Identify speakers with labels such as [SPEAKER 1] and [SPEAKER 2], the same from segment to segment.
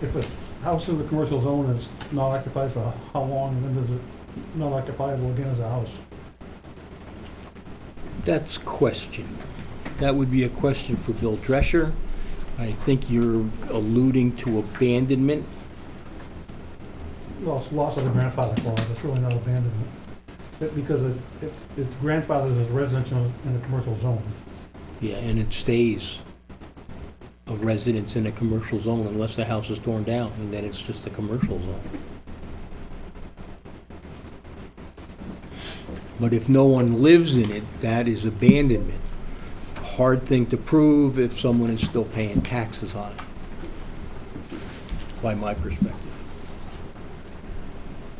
[SPEAKER 1] if a house in the commercial zone is not occupied for how long, then is it not occupiable again as a house?
[SPEAKER 2] That's question. That would be a question for Bill Drescher. I think you're alluding to abandonment.
[SPEAKER 1] Well, it's loss of the grandfather clause, it's really not abandonment. But because it, it- it's grandfathered as residential in a commercial zone.
[SPEAKER 2] Yeah, and it stays a residence in a commercial zone unless the house is torn down, and then it's just a commercial zone. But if no one lives in it, that is abandonment. Hard thing to prove if someone is still paying taxes on it, by my perspective.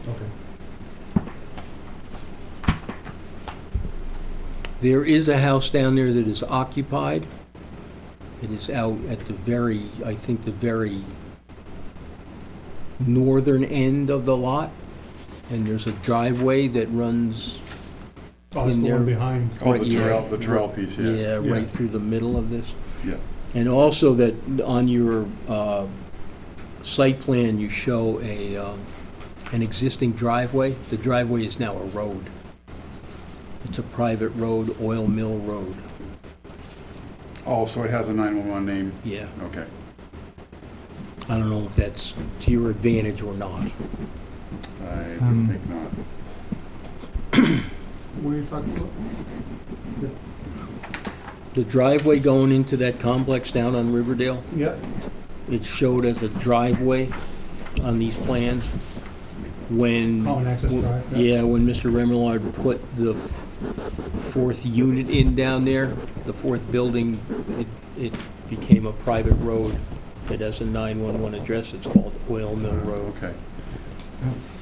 [SPEAKER 1] Okay.
[SPEAKER 2] There is a house down there that is occupied. It is out at the very, I think, the very northern end of the lot. And there's a driveway that runs,
[SPEAKER 1] Oh, it's
[SPEAKER 2] In
[SPEAKER 1] the one
[SPEAKER 2] there.
[SPEAKER 1] behind.
[SPEAKER 3] Oh,
[SPEAKER 2] Right,
[SPEAKER 3] the
[SPEAKER 2] yeah.
[SPEAKER 3] trail, the trail piece, yeah.
[SPEAKER 2] yeah,
[SPEAKER 1] Yeah.
[SPEAKER 2] right through the middle of this.
[SPEAKER 3] Yeah.
[SPEAKER 2] And also that on your uh, site plan, you show a, um, an existing driveway. The driveway is now a road. It's a private road, oil mill road,
[SPEAKER 3] Oh, so it has a 911 name,
[SPEAKER 2] yeah.
[SPEAKER 3] okay.
[SPEAKER 2] I don't know if that's to your advantage or not.
[SPEAKER 3] I
[SPEAKER 4] Um,
[SPEAKER 3] would think not.
[SPEAKER 1] What are you talking about?
[SPEAKER 2] The driveway going into that complex down on Riverdale,
[SPEAKER 1] Yeah,
[SPEAKER 2] it's showed as a driveway on these plans. When,
[SPEAKER 1] common Oh, access drive.
[SPEAKER 2] yeah, when Mr. Remillard put the fourth unit in down there, the fourth building, it, it became a private road that has a 911 address. It's called Oil Mill Road.
[SPEAKER 3] Okay,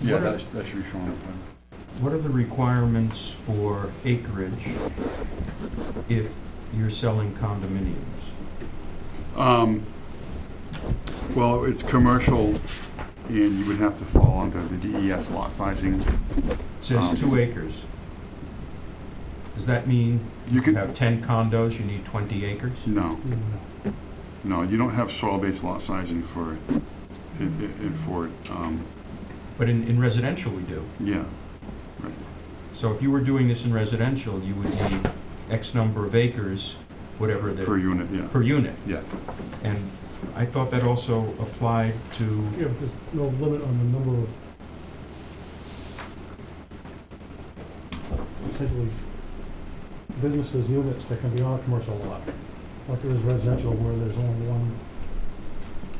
[SPEAKER 3] yeah,
[SPEAKER 4] What are-
[SPEAKER 3] that that should be shown up.
[SPEAKER 4] what are the requirements for acreage if you're selling condominiums?
[SPEAKER 3] Um, Well, it's commercial, and you would have to fall under the DES lot sizing.
[SPEAKER 4] It
[SPEAKER 3] Um,
[SPEAKER 4] says two acres. Does that mean
[SPEAKER 3] You
[SPEAKER 4] you
[SPEAKER 3] could,
[SPEAKER 4] have 10 condos, you need 20 acres?
[SPEAKER 3] no,
[SPEAKER 1] No, no.
[SPEAKER 3] no, you don't have soil-based lot sizing for, in- in in- for, um,
[SPEAKER 4] But in in residential, we do.
[SPEAKER 3] yeah,
[SPEAKER 4] So if you were doing this in residential, you would need X number of acres, whatever
[SPEAKER 3] per
[SPEAKER 4] the,
[SPEAKER 3] unit, yeah,
[SPEAKER 4] per unit.
[SPEAKER 3] yeah.
[SPEAKER 4] And I thought that also applied to,
[SPEAKER 1] Yeah, but there's no limit on the number of essentially businesses, units that can be on a commercial lot, like there is residential where there's only one.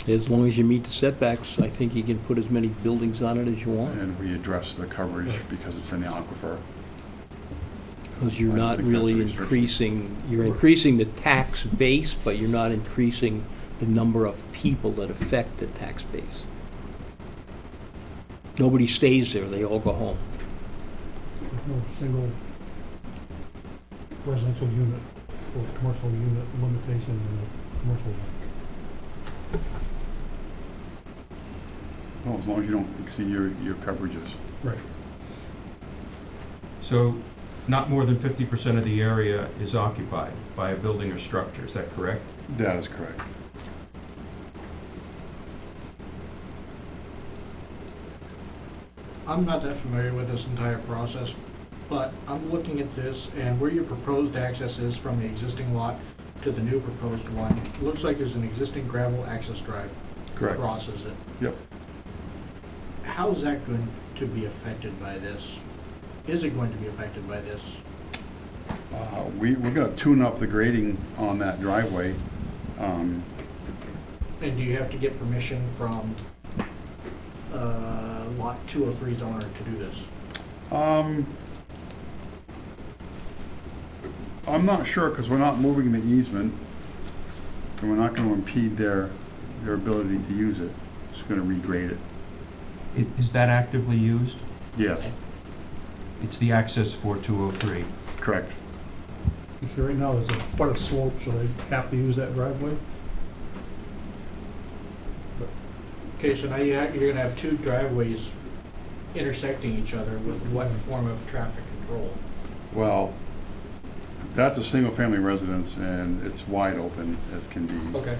[SPEAKER 2] As long as you meet the setbacks, I think you can put as many buildings on it as you want.
[SPEAKER 3] And we address the coverage because it's in the aquifer.
[SPEAKER 2] Because you're
[SPEAKER 3] I don't
[SPEAKER 2] not
[SPEAKER 3] think that's a
[SPEAKER 2] really
[SPEAKER 3] restriction.
[SPEAKER 2] increasing, you're increasing the tax base, but you're not increasing the number of people that affect the tax base. Nobody stays there, they all go home.
[SPEAKER 1] There's no single residential unit or commercial unit limitation in a commercial lot.
[SPEAKER 3] Well, as long as you don't exceed your, your coverages.
[SPEAKER 4] so not more than 50% of the area is occupied by a building or structure, is that correct?
[SPEAKER 3] That is correct.
[SPEAKER 5] I'm not that familiar with this entire process, but I'm looking at this and where your proposed access is from the existing lot to the new proposed one, it looks like there's an existing gravel access drive that
[SPEAKER 3] Correct.
[SPEAKER 5] crosses it.
[SPEAKER 3] Yep.
[SPEAKER 5] How's that going to be affected by this? Is it going to be affected by this?
[SPEAKER 3] Uh, We, we're gonna tune up the grading on that driveway. Um,
[SPEAKER 5] And do you have to get permission from uh, Lot 203's owner to do this?
[SPEAKER 3] um, I'm not sure, because we're not moving the easement, and we're not gonna impede their, their ability to use it. Just gonna regrade it.
[SPEAKER 4] I- Is that actively used?
[SPEAKER 3] Yes,
[SPEAKER 4] It's the access oh for 203.
[SPEAKER 3] correct.
[SPEAKER 1] Because right now, there's a, quite a slope, so they have to use that driveway.
[SPEAKER 5] Okay, so now you have, you're gonna have two driveways intersecting each other with what form of traffic control?
[SPEAKER 3] Well, that's a single-family residence, and it's wide open as can be.
[SPEAKER 5] Okay.